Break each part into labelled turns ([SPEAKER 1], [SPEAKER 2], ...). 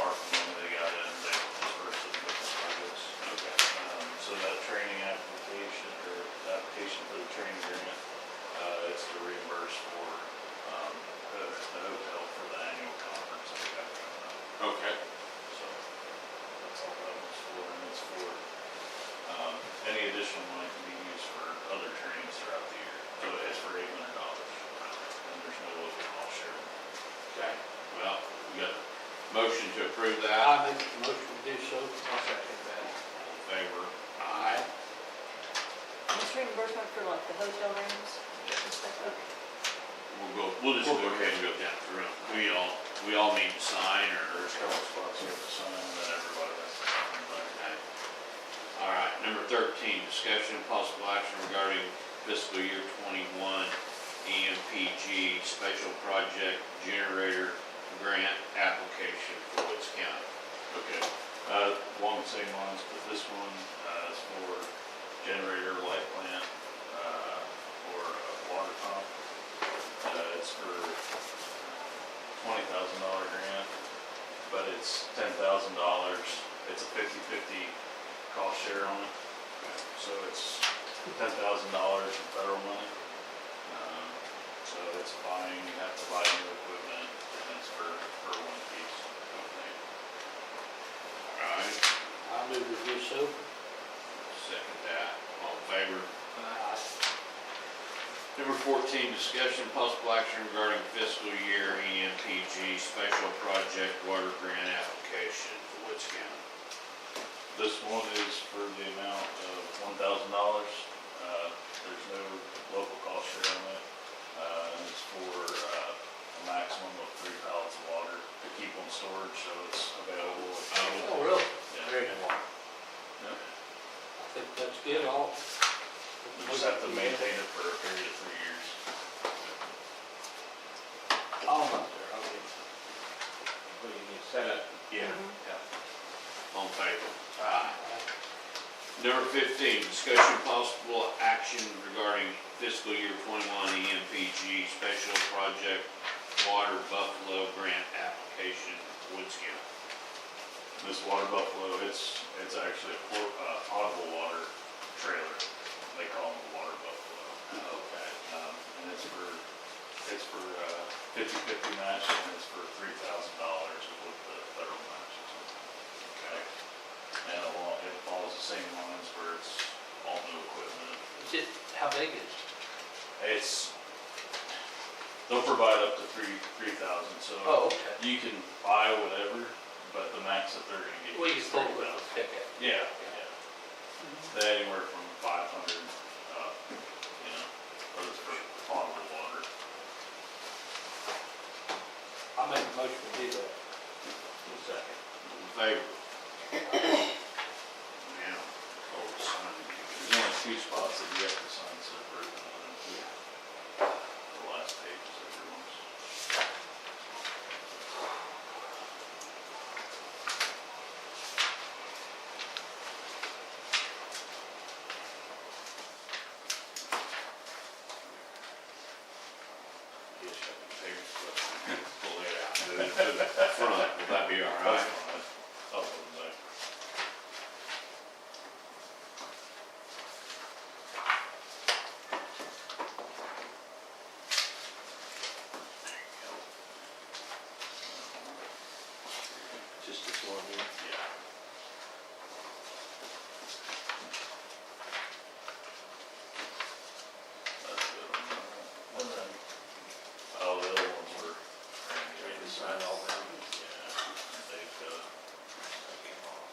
[SPEAKER 1] Um, uh, um, um, approve that,
[SPEAKER 2] I make the motion to do so. I'll second that.
[SPEAKER 1] All in favor,
[SPEAKER 2] Aye.
[SPEAKER 3] It's reimbursement for like the hotel rooms and stuff. Okay.
[SPEAKER 1] we'll go, we'll just go ahead and go down through them. We all, we all need to sign or?
[SPEAKER 4] There's a couple spots here to sign, and then everybody, that's everybody.
[SPEAKER 1] Okay. All right, number thirteen, discussion and possible action regarding fiscal year twenty-one E EMPG special project generator grant application for Woods County.
[SPEAKER 4] Okay, uh, along the same lines, but this one, uh, is for generator light plant, uh, for a water pump. Uh, it's for twenty thousand dollar grant, but it's ten thousand dollars, it's a fifty-fifty cost share on it. So it's ten thousand dollars in federal money. Um, So it's buying, you have to buy new equipment, and it's for, for one piece, I think.
[SPEAKER 1] All right,
[SPEAKER 2] I move to do so.
[SPEAKER 1] second that, all in favor?
[SPEAKER 2] Aye.
[SPEAKER 1] Number fourteen, discussion and possible action regarding fiscal year E EMPG special project water grant application for Woods County.
[SPEAKER 4] This one is for the amount of one thousand dollars. Uh, There's no local cost share on it. Uh, and It's for uh, a maximum of three pallets of water to keep on storage, so it's available.
[SPEAKER 1] Oh.
[SPEAKER 2] Oh, really?
[SPEAKER 4] Yeah.
[SPEAKER 2] Very good.
[SPEAKER 4] Yep.
[SPEAKER 2] I think that's good, all.
[SPEAKER 4] We just have to maintain it for a period of three years.
[SPEAKER 2] All up there, okay. What do you need, set up?
[SPEAKER 4] Yeah.
[SPEAKER 1] All in favor? Aye. Number fifteen, discussion possible action regarding fiscal year twenty-one E EMPG special project water buffalo grant application, Woods County.
[SPEAKER 4] This water buffalo, it's, it's actually a por- uh, potable water trailer. They call them a water buffalo.
[SPEAKER 1] Okay.
[SPEAKER 4] Um, and it's for, it's for, uh, fifty-fifty match, and it's for three thousand dollars with the federal match. Okay. And along, it follows the same lines where it's all new equipment.
[SPEAKER 2] Is it, how big is it?
[SPEAKER 4] It's, they'll provide up to three, three thousand, so.
[SPEAKER 2] Oh, okay.
[SPEAKER 4] You can buy whatever, but the max that they're gonna give
[SPEAKER 2] Well,
[SPEAKER 4] you
[SPEAKER 2] you
[SPEAKER 4] is
[SPEAKER 2] still
[SPEAKER 4] three
[SPEAKER 2] with
[SPEAKER 4] thousand.
[SPEAKER 2] the pickup.
[SPEAKER 4] Yeah, yeah. They anywhere from five hundred, uh, you know, for the for potable water.
[SPEAKER 2] I make a motion to do that. Second.
[SPEAKER 1] All in favor? Now, oh, sign it.
[SPEAKER 4] There's only two spots that you have to sign separate, and then the last page is everyone's.
[SPEAKER 1] Yes, I can take it, but pull it out, move it to the front, will that be all right?
[SPEAKER 4] Up and back.
[SPEAKER 2] Just this one here.
[SPEAKER 4] Yeah. That's good. What's that? Oh, the other ones were.
[SPEAKER 2] Ready to sign all them?
[SPEAKER 4] Yeah, they've, uh. that came off.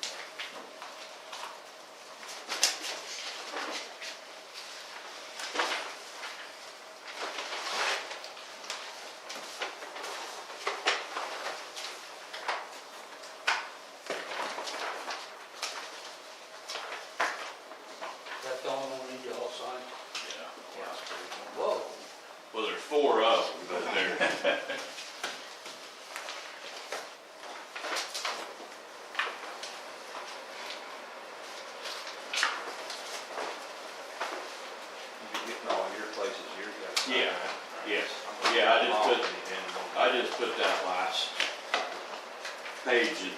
[SPEAKER 1] uh,
[SPEAKER 2] That's the only one you all signed?
[SPEAKER 4] Yeah.
[SPEAKER 2] Yeah.
[SPEAKER 4] that's pretty cool.
[SPEAKER 2] Whoa.
[SPEAKER 1] Well, there's four of them, but they're,
[SPEAKER 5] You're getting all your places, you're gonna.
[SPEAKER 1] yeah, yes, yeah, I just put, I just put that last page in